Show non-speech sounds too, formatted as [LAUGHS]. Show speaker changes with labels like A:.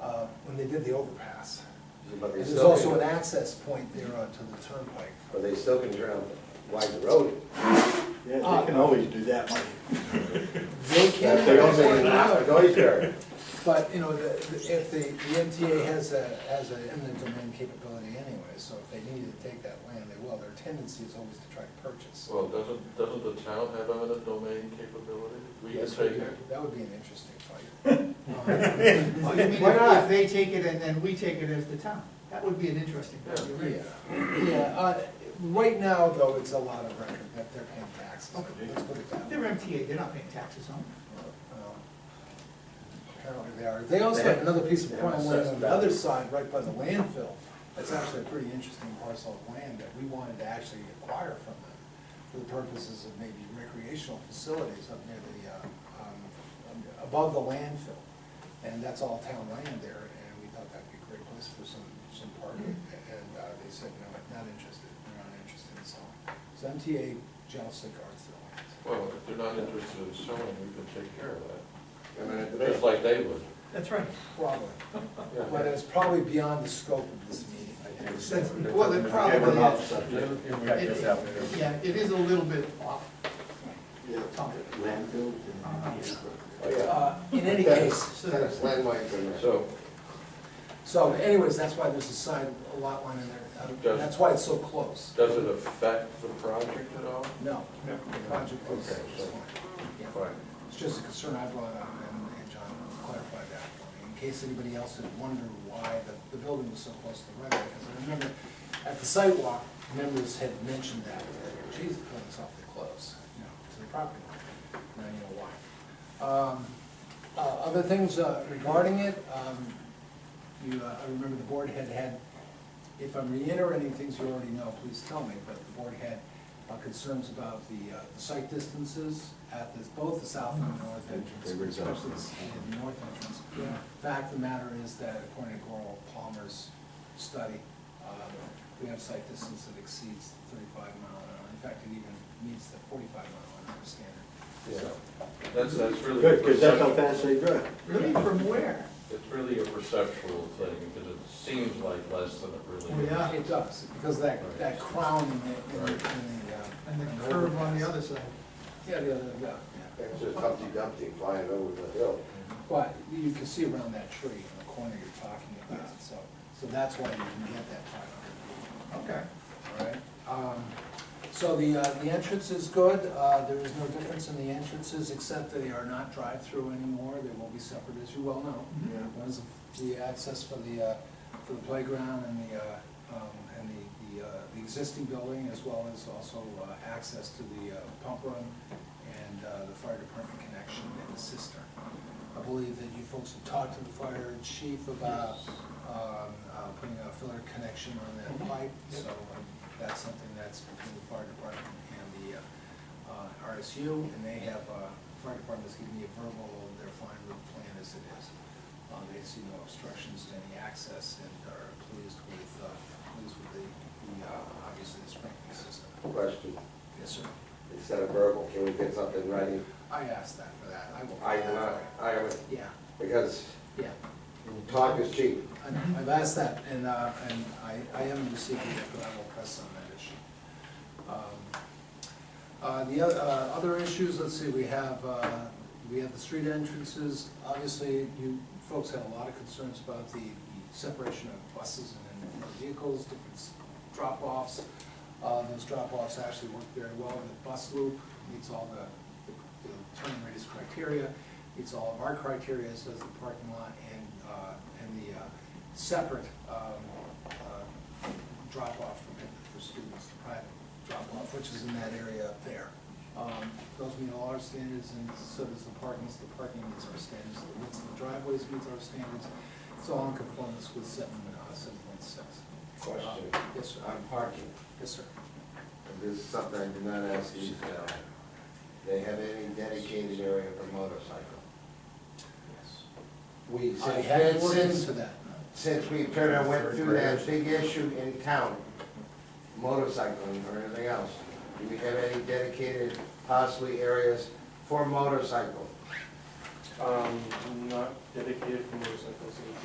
A: uh, when they did the overpass.
B: But they
A: And there's
B: still
A: also
B: can-
A: an access point there onto the turnpike.
B: But they still can turn out widen the road.
C: Yeah, they can always do that, Mike.
A: Uh, [LAUGHS] They can.
B: They don't say not go there.
A: But, you know, the, the- if the, the MTA has a, has an eminent domain capability anyway, so if they need to take that land, they will. Their tendency is always to try to purchase.
D: Well, doesn't, doesn't the town have eminent domain capability? We can
B: Yes, we
D: take
B: do.
D: it.
A: That would be an interesting fight.
C: [LAUGHS]
A: Um,
E: Well, you mean
B: Why
E: if-
B: not?
E: if they take it and then we take it as the town? That would be an interesting,
D: Yeah.
E: you're right.
A: Yeah, yeah, uh, right now, though, it's a lot of record that they're paying taxes,
E: Okay.
A: let's put it that way.
E: They're MTA, they're not paying taxes on it.
A: Well, Apparently they are. They also have another piece of prime land on the other side, right by the landfill. That's actually a pretty interesting parcel of land that we wanted to actually acquire from them for the purposes of maybe recreational facilities up near the, uh, um, above the landfill. And that's all town land there, and we thought that'd be a great place for some, some parking. And uh, they said, no, not interested, they're not interested in selling. So MTA jealously guards their lands.
D: Well, if they're not interested in selling, we can take care of that,
B: Eminent domain.
D: just like they would.
E: That's right.
A: Probably.
D: Yeah.
A: But it's probably beyond the scope of this meeting.
E: That's, well, it
C: Okay, we're
E: probably
C: off
E: is.
C: subject.
E: It- Yeah, it is a little bit off. Uh,
C: Yeah.
E: topic.
C: Landfills and.
B: Oh, yeah.
A: Uh, In any
B: That's-
A: case,
B: That's landmines in there.
D: So,
A: so anyways, that's why there's a side, a lot line in there. Um,
D: Does-
A: That's why it's so close.
D: does it affect the project at all?
A: No, the project is
D: Okay,
A: is
D: so-
A: fine. Yeah.
D: Fine.
A: It's just a concern I brought up, and and John clarified that for me, in case anybody else had wondered why the, the building was so close to the road. Because I remember, at the sidewalk, members had mentioned that, that, geez, the building's awfully close, you know, to the property line. Now you know why. Um, uh, Other things uh, regarding it, um, you, uh, I remember the board had had, if I'm reiterating things you already know, please tell me, but the board had uh, concerns about the uh, the site distances at the- both the south and the north entrance,
C: They were exhausted.
A: especially the- the north entrance. Fact of the matter is that according to Goral Palmer's study, uh, we have site distance that exceeds thirty-five mile an hour. In fact, it even meets the forty-five mile an hour standard. So,
D: That's, that's really.
C: Good, because that's how
D: perceptual.
C: fast they drive.
E: Really, from where?
D: It's really a perceptual thing, because it seems like less than it really
E: Oh,
D: is.
E: yeah.
A: It does, because that, that crown in the, in the- in the. uh,
E: And
A: in
E: the curve on the other side.
A: Yeah, the other, yeah, yeah.
B: It's just Humpty Dumpty flying over the hill.
A: But you can see around that tree in the corner you're talking about, so, so that's why you can get that five hundred
E: Okay.
A: feet, all right? Um, So the, uh, the entrance is good, uh, there is no difference in the entrances, except they are not drive-through anymore, they will be separate, as you well know.
C: Yeah.
A: One is the access for the, uh, for the playground and the, uh, um, and the, the, uh, the existing building, as well as also uh, access to the uh, pump room and uh, the fire department connection and the cistern. I believe that you folks have talked to the fire chief about um, uh, putting a filler connection on that pipe, so um, that's something that's between the fire department and the uh, uh, RSU, and they have, uh, fire department's giving me a verbal, of their fine route plan as it is. Uh, They see no obstructions to any access and are pleased with, uh, pleased with the, the, uh, obviously the sprinkling system.
B: Question,
A: Yes, sir.
B: instead of verbal, can we get something in writing?
A: I asked that for that. I will.
B: I, uh, I, would-
A: Yeah,
B: because
A: yeah.
B: talk is cheap.
A: I know. I've asked that, and, uh, and I, I am receiving it, but I will press on that issue. Um, Uh, The oth- uh, other issues, let's see, we have, uh, we have the street entrances. Obviously, you folks had a lot of concerns about the the separation of buses and motor vehicles, different s- drop-offs. Uh, Those drop-offs actually work very well in the bus loop, meets all the the turn radius criteria, meets all of our criteria, as does the parking lot and, uh, and the uh, separate um, uh, drop-off for for students, private drop-off, which is in that area up there. Um, Those meet all our standards, and so does the parking, so the parking meets our standards, the width of the driveways meets our standards. It's all in conformance with seven, uh, seven point six. Uh,
B: Question.
A: Yes, sir.
B: On parking,
A: Yes, sir.
B: and this is something I did not ask you, uh, they have any dedicated area for motorcycle?
A: I
B: We, since,
A: had
B: then-
A: words
B: since,
A: for that.
B: since we turned and went through that big issue in town, motorcycling or anything else, do we have any dedicated possibly areas for motorcycle?
F: Um, not dedicated for motorcycles.